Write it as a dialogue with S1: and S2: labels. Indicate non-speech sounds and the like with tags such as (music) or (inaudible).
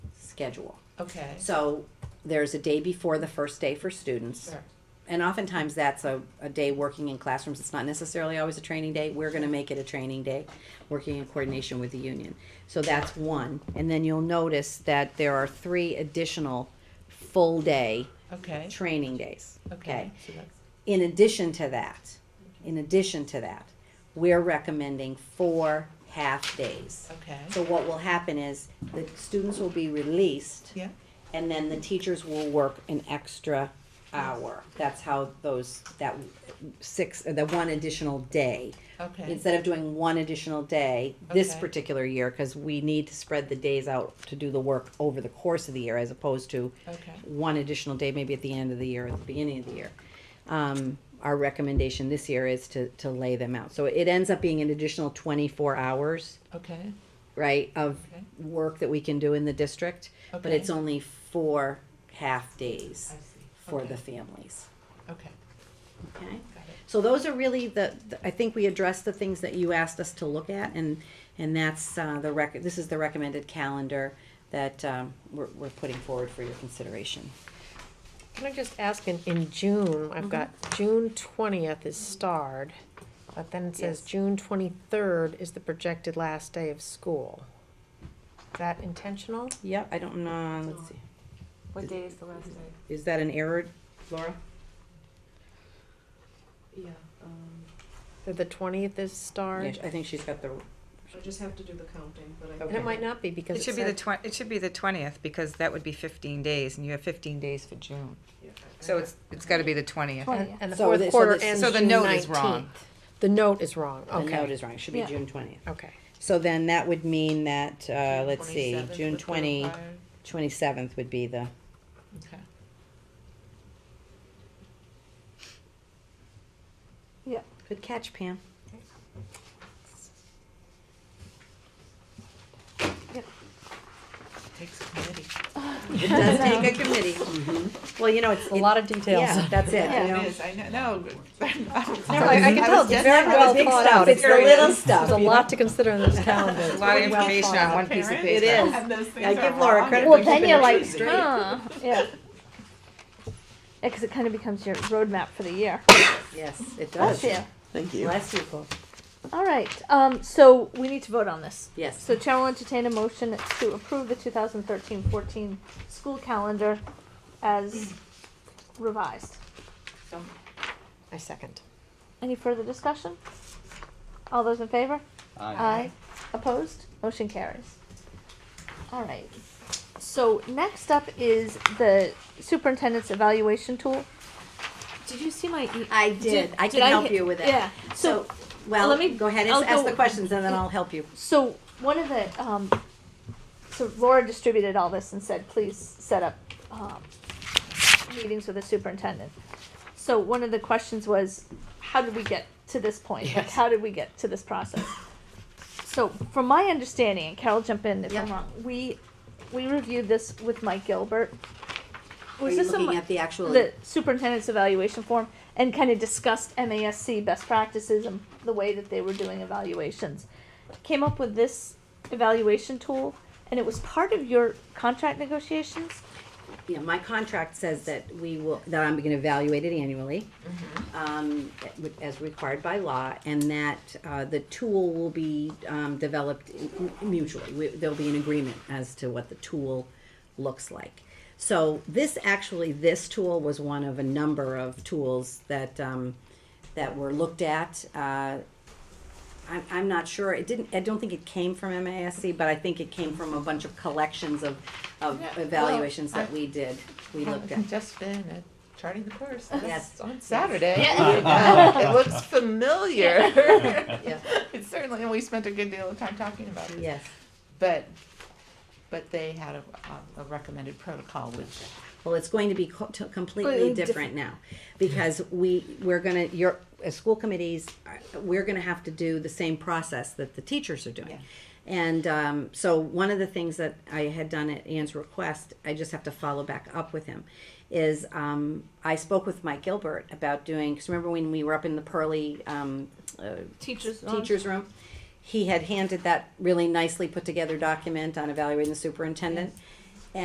S1: schedule.
S2: Okay.
S1: So there's a day before the first day for students.
S2: Sure.
S1: And oftentimes that's a, a day working in classrooms. It's not necessarily always a training day. We're going to make it a training day, working in coordination with the union. So that's one. And then you'll notice that there are three additional full day
S2: Okay.
S1: training days.
S2: Okay. So that's-
S1: In addition to that, in addition to that, we're recommending four half days.
S2: Okay.
S1: So what will happen is the students will be released
S2: Yeah.
S1: and then the teachers will work an extra hour. That's how those, that six, or the one additional day.
S2: Okay.
S1: Instead of doing one additional day this
S2: Okay.
S1: particular year, because we need to spread the days out to do the work over the course of the year as opposed to
S2: Okay.
S1: one additional day, maybe at the end of the year, or at the beginning of the year. Um, our recommendation this year is to, to lay them out. So it ends up being an additional twenty-four hours
S2: Okay.
S1: right, of
S2: Okay.
S1: work that we can do in the district, but
S2: Okay.
S1: it's only four half days
S2: I see.
S1: for the
S2: Okay.
S1: families.
S2: Okay.
S1: Okay?
S2: Got it.
S1: So those are really the, the- I think we addressed the things that you asked us to look at, and, and that's uh, the rec, this is the recommended calendar that um, we're, we're putting forward for your consideration.
S3: Can I just ask, in, in June, I've got
S1: Mm-hmm.
S3: June twentieth is starred, but then it says
S1: Yes.
S3: June twenty-third is the projected last day of school. Is that intentional?
S1: Yep, I don't know, let's see,
S4: What day is the last day?
S1: is that an error, Laura?
S4: Yeah, um,
S3: That the twentieth is
S1: Yeah,
S3: starred?
S1: I think she's got the,
S4: I just have to do the counting, but I.
S3: And it might not be because
S5: It
S3: it
S5: should be the
S3: said,
S5: twen- it should be the twentieth, because that would be fifteen days, and you have fifteen days for June.
S4: Yeah, I-
S5: So it's, it's gotta be the twentieth.
S3: and and the
S1: So the- so
S3: fourth quarter
S1: the-
S3: ends
S5: So the
S3: June
S5: note is wrong.
S3: nineteenth. The note is wrong,
S1: the note
S3: okay,
S1: is wrong, it should be
S4: Yeah.
S1: June twentieth. (laughs)
S3: okay.
S1: So then that would mean that, uh, let's see,
S2: 27th
S1: June
S2: would be
S1: twenty,
S2: required.
S1: twenty-seventh would be the,
S2: Okay.
S1: good catch Pam.
S2: Takes a committee.
S1: It (laughs) does take a committee. Well, you know, Mm-hmm. it's.
S3: A lot of details.
S1: Yeah, that's it, you
S2: Yeah, it
S1: know.
S2: is. I know.
S1: (laughs)
S2: No.
S3: No, I- I can tell it's very
S1: not
S3: well
S1: the big
S3: thought
S1: stuff,
S3: out.
S1: It's the
S5: Very
S1: little
S3: (laughs) There's a
S1: stuff.
S3: lot to consider in this calendar.
S1: (laughs)
S5: A lot of information on one piece of paper.
S1: It is.
S4: And those things
S1: I
S4: are
S1: give Laura
S4: wrong.
S1: credit
S6: Well,
S1: for
S6: then
S1: keeping
S6: you're
S1: it
S6: like,
S1: straight.
S6: huh, (laughs) yeah. Yeah, because it kind of becomes your roadmap for the year.
S1: Yes, it does.
S6: Bless you.
S7: Thank you.
S1: Bless you, Paul.
S6: All right, um, so we need to vote on this.
S1: Yes.
S6: So Chair will entertain a motion to approve the 2013-14 school calendar as revised.
S3: I second.
S6: Any further discussion? All those in favor? Aye. Opposed? Motion carries. All right. So next up is the superintendent's evaluation tool. Did you see my? e-
S1: I did. I can
S6: I
S1: help
S6: hit-
S1: you with it.
S6: Yeah.
S1: So,
S6: So,
S1: well,
S6: let me-
S1: go ahead and
S6: I'll
S1: ask
S6: go-
S1: the questions and then I'll help you.
S6: so one of the um, so Laura distributed all this and said, please set up um, meetings with the superintendent. So one of the questions was, how did we get to this point? Like,
S3: Yes.
S6: how did we get to this process? So from my understanding, and Carol, jump in if I'm
S1: Yeah.
S6: wrong. We we reviewed this with Mike Gilbert.
S1: Are
S6: Was
S1: you
S6: this a Mi-
S1: looking at the actual,
S6: the superintendent's evaluation form and kind of discussed MASC best practices and the way that they were doing evaluations. Came up with this evaluation tool, and it was part of your contract negotiations.
S1: yeah, my contract says that we will, that I'm gonna evaluate it annually.
S2: Mm-hmm.
S1: um, as required by law, and that uh, the tool will be um, developed mutually. We- There'll be an agreement as to what the tool looks like. So this, actually, this tool was one of a number of tools that, um, that were looked at. Uh, I'm, I'm not sure, it didn't, I don't think it came from MASC, but I think it came from a bunch of collections of, of
S2: Yeah, well,
S1: evaluations that
S2: I-
S1: we did, we looked at.
S2: I've (laughs) Just been at charting the course.
S1: Yes.
S2: That's on Saturday. (laughs) It looks familiar. (laughs)
S1: Yeah.
S2: It certainly, and we spent a good deal of time talking about it.
S1: Yes,
S2: But, but they had a, um, a recommended protocol, which
S1: well, it's going to be co- to- completely
S6: Completely
S1: different now, because we, we're gonna, your, as school committees, uh, we're gonna have to do the same process that the teachers are doing. And, um, so one of the things that I had done at Ann's request, I just have to follow back up with him, is, um, I spoke with Mike Gilbert about doing, cause remember when we were up in the Pearly, um, uh,
S6: Teachers.
S1: teacher's room. He had handed that really nicely put together document on evaluating the superintendent.